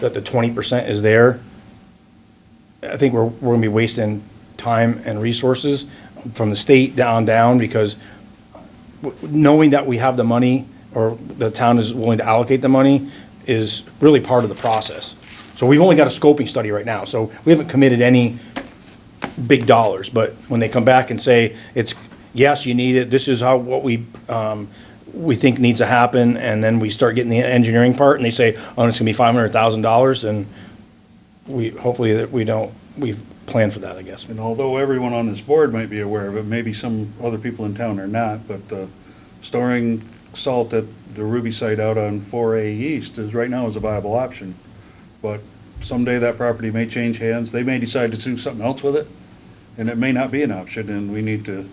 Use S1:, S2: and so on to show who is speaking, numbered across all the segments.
S1: that the twenty percent is there, I think we're, we're gonna be wasting time and resources from the state down, down, because w- knowing that we have the money, or the town is willing to allocate the money, is really part of the process. So we've only got a scoping study right now, so we haven't committed any big dollars, but when they come back and say, it's, yes, you need it, this is how, what we, um, we think needs to happen, and then we start getting the engineering part, and they say, oh, it's gonna be five hundred thousand dollars, and we, hopefully that we don't, we've planned for that, I guess.
S2: And although everyone on this board might be aware of it, maybe some other people in town are not, but uh, storing salt at the Ruby site out on 4A East is, right now is a viable option. But someday that property may change hands, they may decide to do something else with it, and it may not be an option, and we need to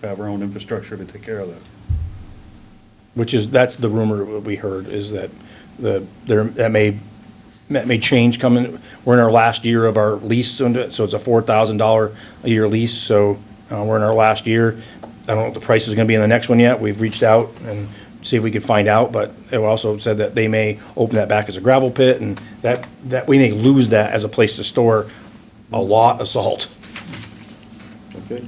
S2: have our own infrastructure to take care of that.
S1: Which is, that's the rumor that we heard, is that the, there, that may, that may change coming, we're in our last year of our lease, so it's a four thousand dollar a year lease, so, uh, we're in our last year. I don't know what the price is gonna be in the next one yet, we've reached out and see if we could find out, but it also said that they may open that back as a gravel pit, and that, that we may lose that as a place to store a lot of salt.
S3: Okay.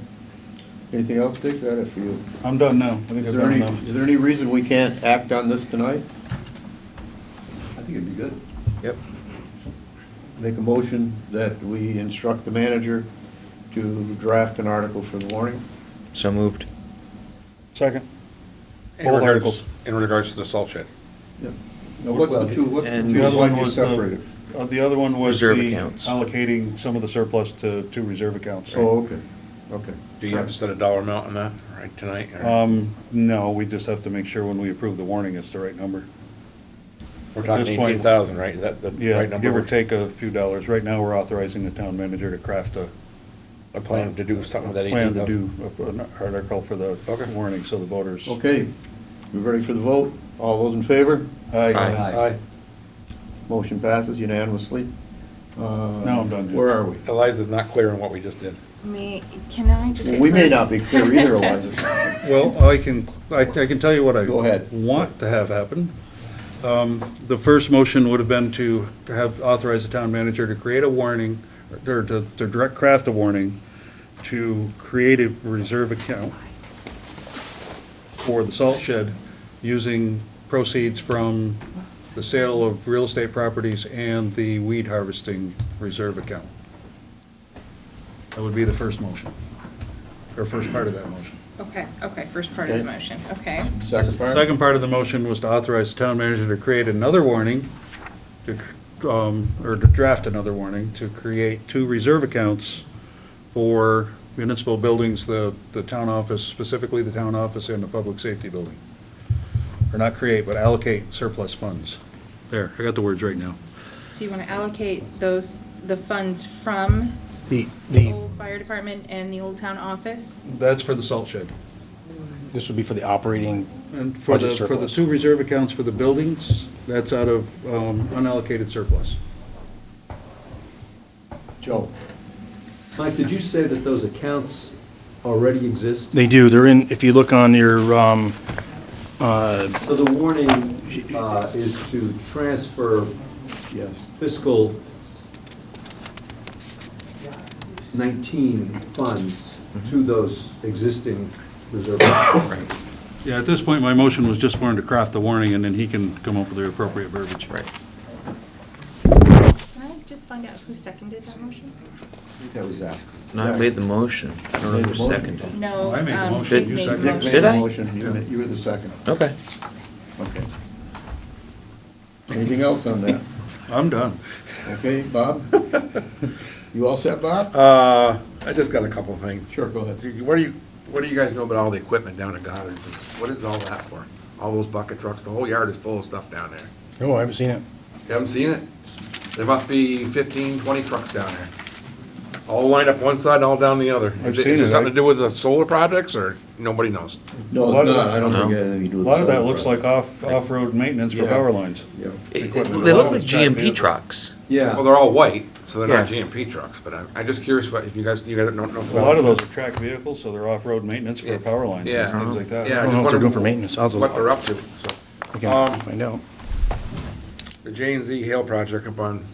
S3: Anything else, Dick, that if you,
S2: I'm done now. I think
S3: is
S2: I've
S3: there
S2: done
S3: any,
S2: enough.
S3: is there any reason we can't act on this tonight?
S4: I think it'd be good.
S3: Yep. Make a motion that we instruct the manager to draft an article for the warning?
S5: So moved.
S2: Second.
S6: In
S2: Both
S6: regards-
S2: articles.
S6: In regards to the salt shed.
S3: Now, what's the two, what's the
S5: And-
S3: two
S2: The other one
S3: one you
S2: was the,
S3: separated?
S2: uh, the other one was
S5: Reserve
S2: the
S5: accounts.
S2: allocating some of the surplus to, to reserve accounts.
S3: Oh, okay, okay.
S6: Do you have to set a dollar amount on that, right, tonight? or-
S2: Um, no, we just have to make sure when we approve the warning, it's the right number.
S6: We're
S2: at
S6: talking
S2: this point-
S6: eighteen thousand, right? Is that the
S2: Yeah,
S6: right number?
S2: give or take a few dollars. Right now, we're authorizing the town manager to craft a
S6: I plan to do something with that eighteen
S2: uh, plan to
S6: thousand.
S2: do a- an article for the
S6: Okay.
S2: warning, so the voters.
S3: Okay, you ready for the vote? All those in favor?
S2: Aye.
S5: Aye.
S6: Aye.
S3: Motion passes unanimously. Now
S2: Now I'm done, Dick.
S3: Where are we?
S6: Eliza's not clear on what we just did.
S7: May, can I just?
S3: Well,
S7: get
S3: We may
S7: clarity?
S3: not be clear either, Eliza.
S2: Well, I can, I, I can tell you what I.
S3: Go ahead.
S2: Want to have happen. Um, the first motion would have been to have, authorize the town manager to create a warning, or to, to direct craft a warning, to create a reserve account for the salt shed, using proceeds from the sale of real estate properties and the weed harvesting reserve account. That would be the first motion, or first part of that motion.
S7: Okay, okay, first part of the
S3: Okay.
S7: motion, okay.
S3: Second part?
S2: Second part of the motion was to authorize the town manager to create another warning, to, um, or to draft another warning, to create two reserve accounts for municipal buildings, the, the town office, specifically the town office and the public safety building. Or not create, but allocate surplus funds. There, I got the words right now.
S7: So you want to allocate those, the funds from
S1: The,
S7: the
S1: the,
S7: old fire department and the old town office?
S2: That's for the salt shed.
S1: this would be for the operating,
S2: And for the,
S1: Budget
S2: for the
S1: surplus.
S2: two reserve accounts for the buildings, that's out of um, unallocated surplus.
S3: Joe?
S4: Mike, did you say that those accounts already exist?
S1: they do, they're in, if you look on your, um,
S4: So the warning uh, is to transfer
S3: Yes.
S4: fiscal 19 funds to those existing reserve accounts.
S2: Yeah, at this point, my motion was just for him to craft the warning, and then he can come up with the appropriate verbiage.
S5: Right.
S7: Can I just find out who seconded that motion?
S3: That was asked.
S5: No, I made the motion. I don't know
S3: Made
S5: if
S3: the
S5: you
S3: motion.
S5: seconded. it.
S7: No.
S2: I made the
S7: um,
S2: motion,
S7: Dick
S2: you
S7: made the
S2: seconded.
S3: Dick
S7: motion.
S3: made
S5: Did
S3: the
S5: I?
S3: motion, you ma- you were the second.
S5: Okay.
S3: Okay. Anything else on that?
S2: I'm done.
S3: Okay, Bob? You all set, Bob?
S6: Uh, I just got a couple of things.
S3: Sure, go ahead.
S6: What do you, what do you guys know about all the equipment down at Goddard? What is all that for? All those bucket trucks, the whole yard is full of stuff down there.
S1: oh, I haven't seen it.
S6: You haven't seen it? There must be 15, 20 trucks down there. All lined up one side, all down the other.
S2: I've
S6: Is it-
S2: seen
S6: Is
S2: it.
S6: it something to do with the solar projects, or nobody knows?
S3: No,
S2: lot of
S3: it's not,
S2: that-
S3: I don't
S5: No.
S3: think it had anything to do
S2: A
S3: with.
S2: lot of
S3: the
S2: that
S3: solar
S2: looks like
S3: project.
S2: off, off-road maintenance for
S3: Yeah.
S2: power lines.
S3: Yeah.
S5: It-
S2: Equipment.
S5: They look like GMP trucks.
S4: Yeah.
S6: Well, they're all white, so they're not
S5: Yeah.
S6: GMP trucks, but I'm, I'm just curious what, if you guys, you guys don't
S2: A
S6: know.
S2: lot of those are track vehicles, so they're off-road maintenance for power lines
S6: Yeah.
S2: and things like that.
S6: Yeah,
S1: I don't
S6: I just
S1: know what they're
S6: wondered
S1: doing for maintenance. I'll-
S6: what they're up to, so.
S1: We can find out.
S6: The J and Z Hill project up on